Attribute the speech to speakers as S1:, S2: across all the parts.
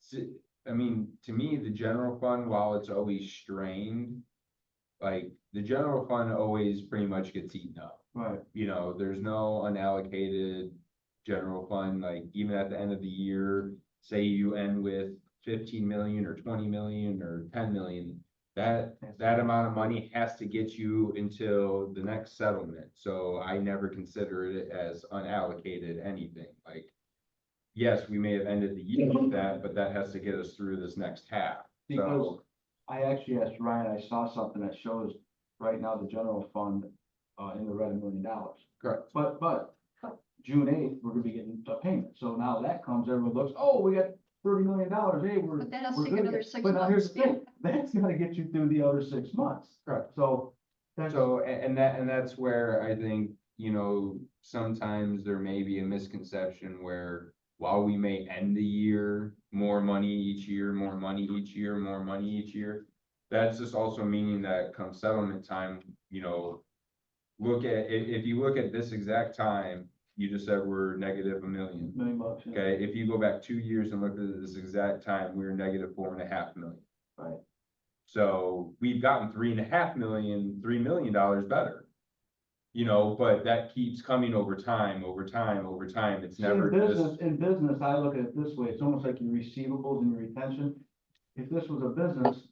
S1: si- I mean, to me, the general fund, while it's always strained. Like, the general fund always pretty much gets eaten up,
S2: Right,
S1: you know, there's no unallocated. General fund, like even at the end of the year, say you end with fifteen million or twenty million or ten million. That, that amount of money has to get you until the next settlement, so I never consider it as unallocated anything, like. Yes, we may have ended the year with that, but that has to get us through this next half,
S2: Because-
S1: so,
S2: I actually asked Ryan, I saw something that shows right now the general fund, uh, in the red a million dollars.
S1: correct,
S2: But, but June eighth, we're gonna be getting a payment, so now that comes, everyone looks, oh, we got thirty million dollars, hey, we're.
S3: But that'll
S2: we're
S3: take
S2: good
S3: another
S2: again."
S3: six
S2: But now here's
S3: months.
S2: the thing, that's gonna get you through the other six months,
S1: correct.
S2: so that's,
S1: So, a- and that, and that's where I think, you know, sometimes there may be a misconception where while we may end the year, more money each year, more money each year, more money each year. That's just also meaning that come settlement time, you know, look at, i- if you look at this exact time, you just said we're negative a million.
S2: million bucks. yeah.
S1: Okay, if you go back two years and look at this exact time, we were negative four and a half million.
S2: Right.
S1: So we've gotten three and a half million, three million dollars better. You know, but that keeps coming over time, over time, over time. It's
S2: See, In
S1: never just,
S2: business, in business, I look at it this way, it's almost like your receivables and your retention. If this was a business.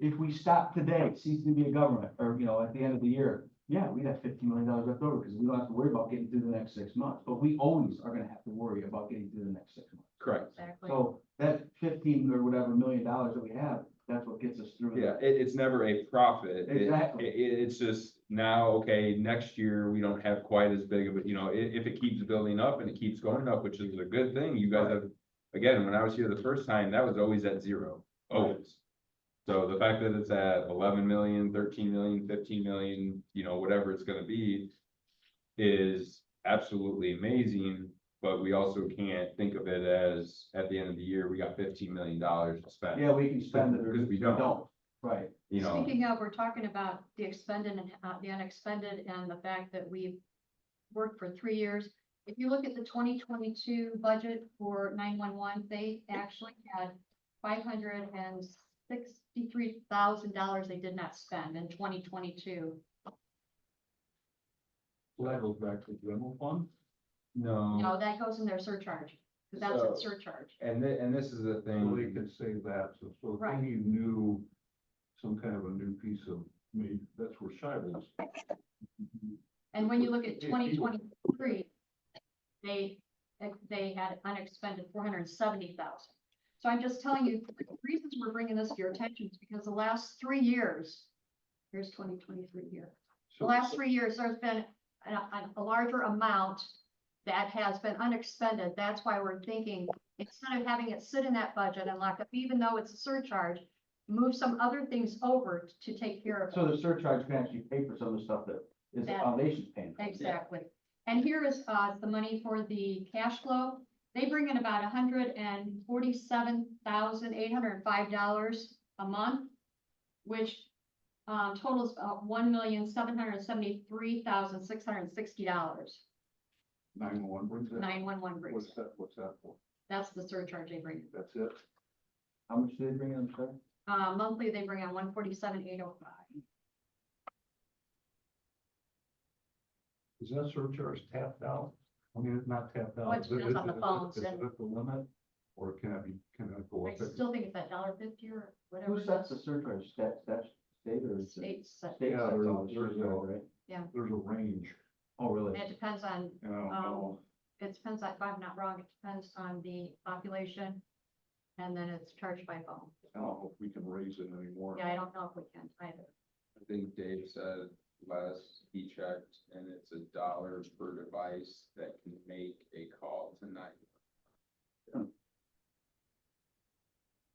S2: If we stop today, cease to be a government, or, you know, at the end of the year, yeah, we got fifteen million dollars left over, because we don't have to worry about getting through the next six months, but we always are gonna have to worry about getting through the next six months.
S1: correct.
S3: Exactly.
S2: So that fifteen or whatever million dollars that we have, that's what gets us through.
S1: Yeah, it, it's never a profit. It-
S2: Exactly.
S1: It, it- it's just now, okay, next year, we don't have quite as big of a, you know, i- if it keeps building up and it keeps going up, which is a good thing, you guys have. Again, when I was here the first time, that was always at zero, always. So the fact that it's at 11 million, 13 million, 15 million, you know, whatever it's gonna be. Is absolutely amazing, but we also can't think of it as, at the end of the year, we got fifteen million dollars to spend.
S2: Yeah, we can spend it or
S1: Because we
S2: we
S1: don't.
S2: don't, right,
S1: You know.
S3: Speaking of, we're talking about the expended and uh, the unexpended and the fact that we've worked for three years. If you look at the twenty twenty-two budget for nine-one-one, they actually had five hundred and sixty-three thousand dollars they did not spend in twenty twenty-two.
S4: Well, that goes back to the general fund.
S2: Mm-hmm.
S3: No, that goes in their surcharge, 'cause that's a
S1: So-
S3: surcharge.
S1: And thi- and this is the
S4: So they
S1: thing,
S4: could say that, so, so if
S3: Right.
S4: we knew some kind of a new piece of, I mean, that's where Shivers.
S3: And when you look at
S4: If you-
S3: twenty twenty-three, they, they had unexpended four hundred and seventy thousand. So I'm just telling you, the reasons we're bringing this to your attention is because the last three years, here's twenty twenty-three here. The
S4: So-
S3: last three years, there's been a, a- a larger amount that has been unexpended. That's why we're thinking, instead of having it sit in that budget and lock up, even though it's a surcharge, move some other things over to take care of it.
S2: so the surcharge can actually pay for some of the stuff that is the
S3: That-
S2: foundation's paying. for.
S3: Exactly. And here is, uh, the money for the cash flow. They bring in about hundred and forty-seven thousand, eight hundred and five dollars a month, which, um, totals, uh, one million, seven hundred and seventy-three thousand, six hundred and sixty dollars.
S4: Nine-one-one brings that.
S3: Nine-one-one brings.
S4: What's that, what's that for?
S3: That's the surcharge they bring.
S4: That's it?
S2: How much do they bring in, sir?
S3: Uh, monthly, they bring in one forty-seven, eight oh five.
S4: Is that surcharge tapped out? I mean, it's not tapped out.
S3: Well, it
S4: is it-
S3: depends on
S4: is
S3: the
S4: it-
S3: phones
S4: Is it
S3: and-
S4: at the limit, or can it be, can it go
S3: I
S4: up?
S3: still think it's that dollar fifty or whatever.
S2: Who
S3: it
S2: sets the
S3: is.
S2: surcharge, stat, stat, state or? is it-
S3: State set.
S2: State
S4: Yeah,
S2: sets
S4: there's a-
S2: all the
S4: there's a-
S2: surcharge, right?
S4: There's a range,
S2: Oh, really?
S3: It depends on um,
S4: and I don't know.
S3: it depends, if I'm not wrong, it depends on the population. And then it's charged by phone.
S4: I don't know if we can raise it anymore.
S3: Yeah, I don't know if we can either.
S1: I think Dave said last he checked, and it's a dollar per device that can make a call tonight.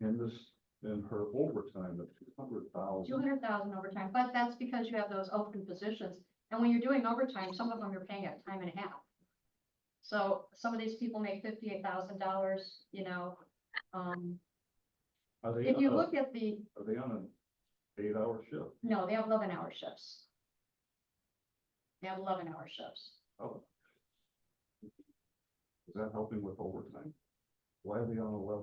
S4: And this, and her overtime of two hundred
S3: Two
S4: thousand.
S3: hundred thousand overtime, but that's because you have those open positions. And when you're doing overtime, some of them you're paying at time and a half. So some of these people make fifty-eight thousand dollars, you know, um,
S4: Are they,
S3: if you
S4: on a-
S3: look at the,
S4: are they on an eight-hour shift?
S3: no, they have eleven-hour shifts. They have eleven-hour shifts.
S4: Oh. Is that helping with overtime? Why are they on eleven?